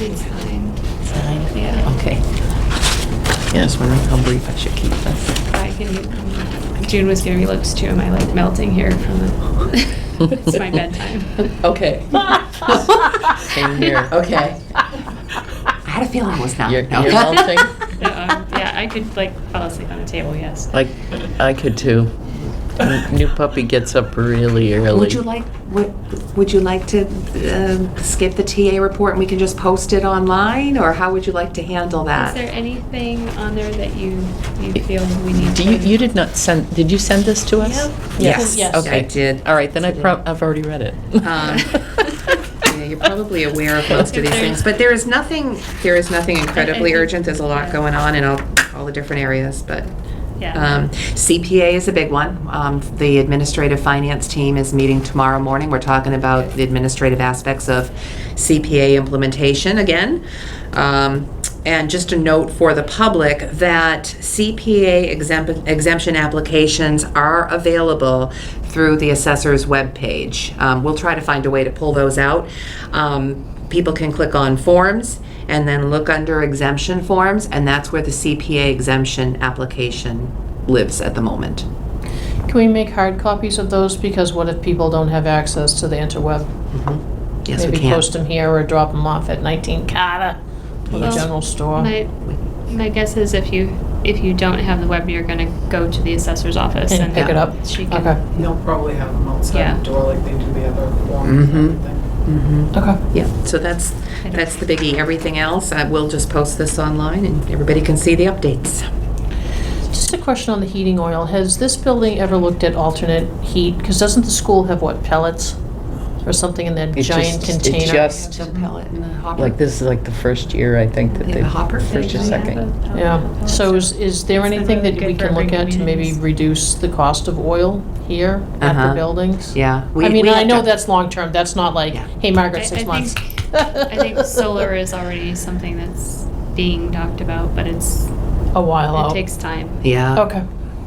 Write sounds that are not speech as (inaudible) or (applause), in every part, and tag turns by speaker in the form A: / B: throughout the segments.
A: It's fine.
B: Nine?
A: Yeah.
B: Okay. Yeah, I was wondering how brief I should keep this.
A: I can, um, June was giving me looks too. Am I like melting here from the, (laughs) it's my
C: (laughs)
A: bedtime. Uh,
D: (laughs)
B: Okay. Same here. Okay.
D: I had a feeling it was not.
B: You're-
D: No.
B: you're
D: (laughs)
B: melting.
A: So, um, Yeah, I could like fall asleep on the table, yes.
B: Like, I could too. New puppy gets up really early.
D: Would you like, would, would you like to um, skip the TA report and we can just post it online? Or how would you like to handle
A: Is
D: that?
A: there anything on there that you, you feel we need
B: Do
A: to?
B: you, you did not send, did you send this to us?
A: Yeah.
D: Yes.
A: Yes.
B: Okay.
D: I did.
B: All right, then I
D: did.
B: prob, I've already read it. (laughs)
D: Um, Yeah, You're probably aware of most of
A: If there's-
D: these things, but there is nothing, there is nothing incredibly urgent. There's a lot going on in all, all the different areas, but.
A: Yeah.
D: Um, CPA is a big one. Um, The administrative finance team is meeting tomorrow morning. We're talking about the administrative aspects of CPA implementation again. Um, And just a note for the public that CPA exempt- exemption applications are available through the assessor's webpage. Um, We'll try to find a way to pull those out. Um, People can click on forms and then look under exemption forms, and that's where the CPA exemption application lives at the moment.
C: Can we make hard copies of those? Because what if people don't have access to the interweb?
D: Yes, we
C: Maybe
D: can.
C: post them here or drop them off at 19 Carter or the
A: Yes.
C: general store.
A: My, my guess is if you, if you don't have the web, you're gonna go to the assessor's office
C: And
A: and.
C: pick it up?
A: She
C: Okay,
A: can,
E: They'll probably have them
A: Yeah.
E: outside the door like they do the other forms and
D: Mhm.
E: everything.
C: okay.
D: Yeah, so that's, that's the biggie. Everything else, I will just post this online and everybody can see the updates.
C: Just a question on the heating oil. Has this building ever looked at alternate heat? Because doesn't the school have, what, pellets or something in that
B: It
C: giant
B: just- it
C: container?
B: just-
D: pellet and the hopper.
B: Like, this is like the first year, I think, that
D: They
B: they.
D: have a hopper?
B: First or
D: They have
B: second.
C: Yeah, so is, is there
A: It's
C: anything that
A: good
C: we
A: for
C: can look
A: urban
C: at to maybe
A: communities.
C: reduce the cost of oil here at
D: Uh-huh.
C: the buildings?
D: Yeah. we-
C: I mean,
D: we
C: I
D: have
C: know
D: to-
C: that's long-term, that's not like,
D: Yeah.
C: hey,
A: I-
C: Margaret,
A: I
C: six months.
A: think- I think solar is already something that's being talked about, but it's,
C: (laughs) A while
A: it
C: out.
A: takes time.
D: Yeah,
C: Okay,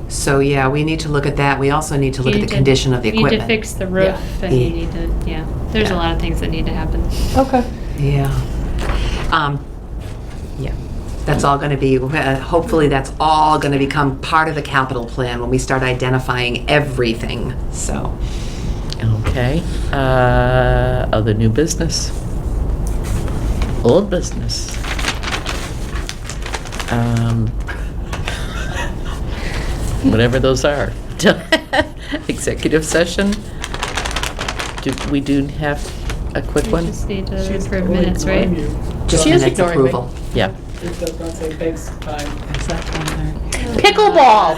D: so yeah, we need to look at that. We also need to look
A: You
D: at
A: need
D: the
A: to-
D: condition of the
A: You need to
D: equipment.
A: fix the roof and you need to, yeah, there's a
D: Yeah.
A: lot of things that need to happen.
C: okay.
D: Yeah. Um, Yeah, that's all going to be, uh, hopefully that's all going to become part of the capital plan when we start identifying everything, so.
B: Okay, uh, other new business? Old business? Um, Whatever those are. (laughs) Executive session? Do, we do have a quick
A: We
B: one?
A: just need to
E: She's
A: approve
E: totally
A: minutes, right?
E: ignoring you.
D: Just
C: She is
D: minutes
C: ignoring me.
D: approval.
B: Yeah.
E: It does not say thanks, bye.
A: Uh,
C: Pickleball.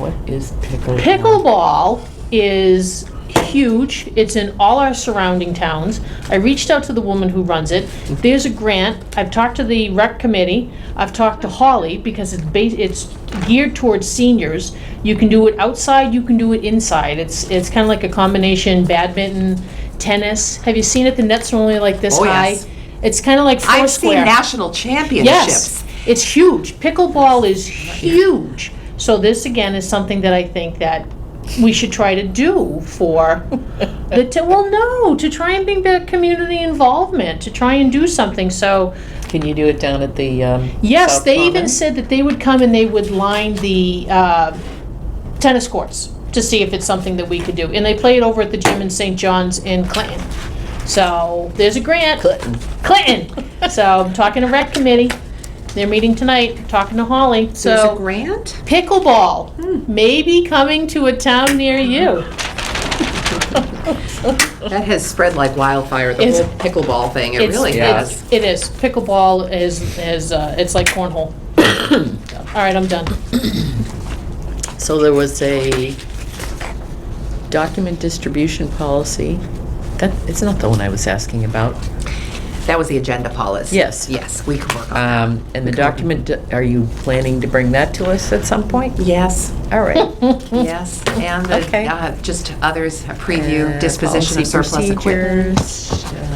B: What is pickle?
C: Pickleball is huge. It's in all our surrounding towns. I reached out to the woman who runs it. There's a grant. I've talked to the rec committee. I've talked to Holly because it's ba- it's geared towards seniors. You can do it outside, you can do it inside. It's it's kind of like a combination badminton, tennis. Have you seen it? The nets are only like this
D: Oh,
C: high.
D: yes.
C: It's kind of like foursquare.
D: I've seen national championships.
C: Yes, it's huge. Pickleball is huge. So this again is something that I think that we should try to do for the, t- well, no, to try and bring back community involvement, to try and do something. So,
B: Can you do it down at the, um?
C: yes,
B: South
C: they even
B: Common?
C: said that they would come and they would line the uh, tennis courts to see if it's something that we could do. And they play it over at the gym in St. John's in Clinton. So there's a grant.
B: Clinton.
D: (laughs)
C: Clinton. so I'm talking to rec committee. They're meeting tonight, talking to Holly.
D: There's a
C: So
D: grant? Hmm.
C: pickleball may be coming to a town near you.
D: That has spread like wildfire, the
C: It's-
D: whole pickleball thing, it
C: It's-
D: really
C: it's-
D: has.
C: It is. Pickleball is, is, uh, it's
D: (coughs)
C: like cornhole. All right, I'm done.
B: So there was a document distribution policy. That, it's not the one I was asking about.
D: That was the agenda policy.
B: Yes.
D: Yes, we can work on that.
B: Um, And the document, are you planning to bring that to us at some point?
D: Yes,
B: All right.
D: yes, and the,
B: Mm. Okay.
D: uh, just others, a preview,
B: Uh,
D: disposition of
B: policy
D: surplus equipment.
B: procedures, um,